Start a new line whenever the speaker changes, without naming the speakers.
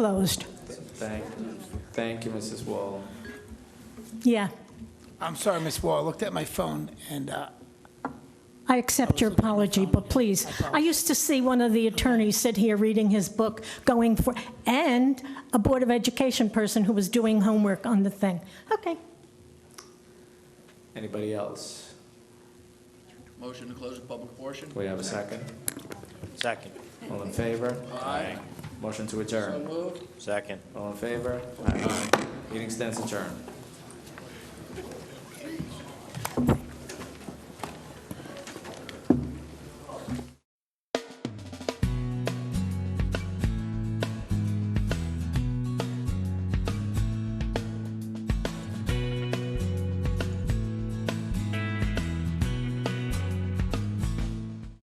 Closed.
Thank, thank you, Mrs. Wall.
Yeah,
I'm sorry, Miss Wall, I looked at my phone, and uh,
I accept your apology, but please, I used to see one of the attorneys sit here reading his book, going for, and a Board of Education person who was doing homework on the thing. Okay,
Anybody else?
Motion to close the public portion?
Do we have a second?
Second.
All in favor?
Aye.
Motion to adjourn.
Moved.
Second.
All in favor? Aye. Meeting stands adjourned.